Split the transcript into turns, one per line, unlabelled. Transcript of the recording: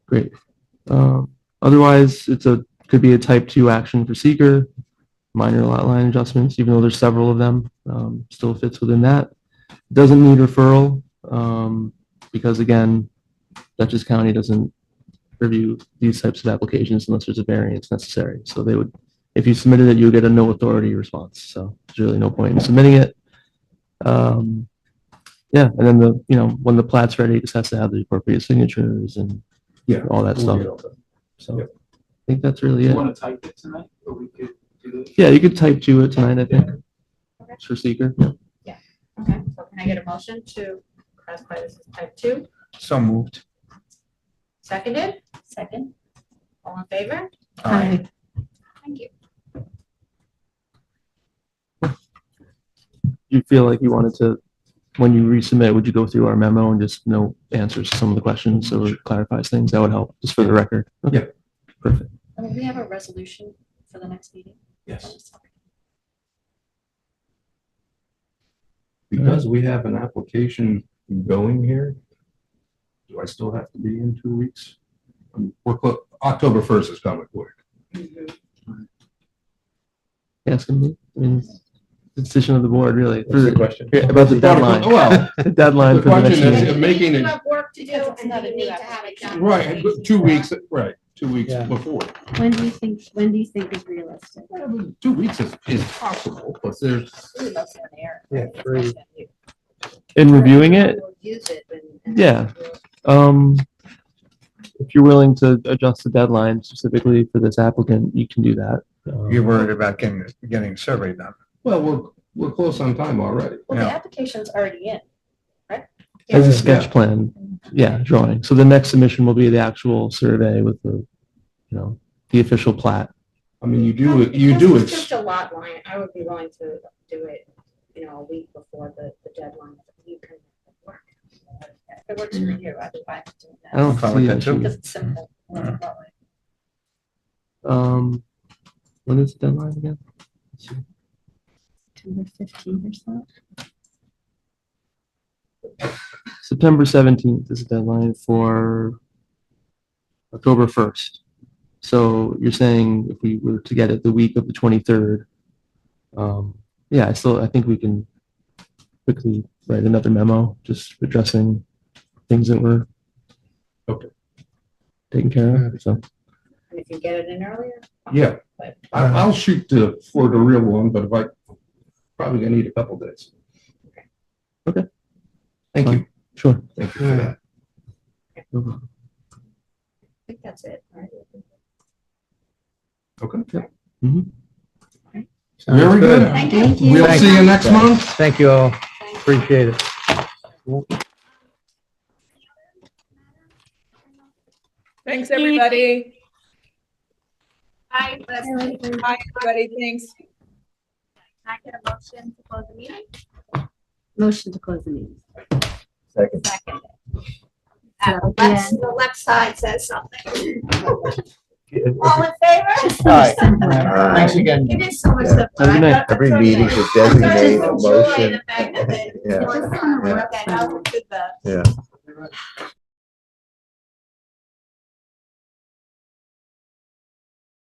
Great. Um, Otherwise, it's a, could be a type two action for seeker, minor lot line adjustments, even though there's several of them, um, still fits within that. Doesn't need referral, um, because again, Dutchess County doesn't review these types of applications unless there's a variance necessary. So they would, if you submitted it, you would get a no authority response. So there's really no point in submitting it. Um, yeah, and then the, you know, when the plat's ready, it just has to have the appropriate signatures and
Yeah.
all that stuff. So I think that's really
You
it.
want to type it tonight, or we could do it?
Yeah, you could type two it tonight, I think. For seeker. yeah.
Okay, so can I get a motion to classify this as type two?
So moved.
Seconded? Second. All in favor?
Aye.
Thank you.
You feel like you wanted to, when you resubmit, would you go through our memo and just know answers to some of the questions so it clarifies things? That would help, just for the record.
Yeah.
Perfect.
Will we have a resolution for the next meeting?
Yes,
Because we have an application going here, do I still have to be in two weeks? Um, We're, clo- October first is coming quick.
Ask him, I mean, it's the decision of the board, really.
that's the question. Oh,
Yeah, About the deadline,
Well,
the deadline
The
for the next
question is-
meeting.
it making
You
it-
have work to do,
Because it's
and
not a
you
new
need to have it done.
right, but two weeks, right, two weeks
Yeah.
before.
When do you think, when do you think is realistic?
Well, I mean, Two weeks is, is possible, but there's,
Ooh, that's in there.
Yeah,
It's
three.
not that you-
In reviewing it,
We'll Use it and- and-
Yeah. um, if you're willing to adjust the deadline specifically for this applicant, you can do that.
You're worried about getting, getting survey done.
well, we're, we're close on time already.
Well, the
Yeah.
application's already in.
As a
Yeah.
sketch plan, yeah, drawing. So the next submission will be the actual survey with the, you know, the official plat.
I mean, you
Um,
do, it. you
because
do,
It's
it.
just a lot line, I would be willing to do it, you know, a week before the, the deadline. if You can work.
If it works for you, I'd be fine with doing
I
that.
Oh.
don't
fine with
see
that
an
too.
issue.
Because it's simple. Well, well,
Um, when is the deadline again?
September fifteenth or so?
September seventeenth is the deadline for October first. So you're saying if we were to get it the week of the twenty-third, um, yeah, I still, I think we can quickly write another memo, just addressing things that were
Okay.
taken care of, so.
And if you get it in earlier. fine,
yeah.
But
I, I'll shoot the, for the real one, but if I, probably gonna need a couple days.
Okay.
Thank you,
Sure.
thank you for that.
No problem.
I think that's it, right?
Okay.
Mhm.
Very good.
Thank you.
We'll see you next month.
Thank you all. Appreciate it.
Thanks, everybody.
Hi, let's, can
Hi, everybody. Thanks.
I get a motion to close the meeting?
Motion to close the meeting.
Second.
So, yeah.
Lex, the left side says something. All in favor?
Aye.
Thanks
again.
It is so much simpler.
Have a good night.
Every meeting should designate a motion.
Yeah.
That helped with the.
Yeah.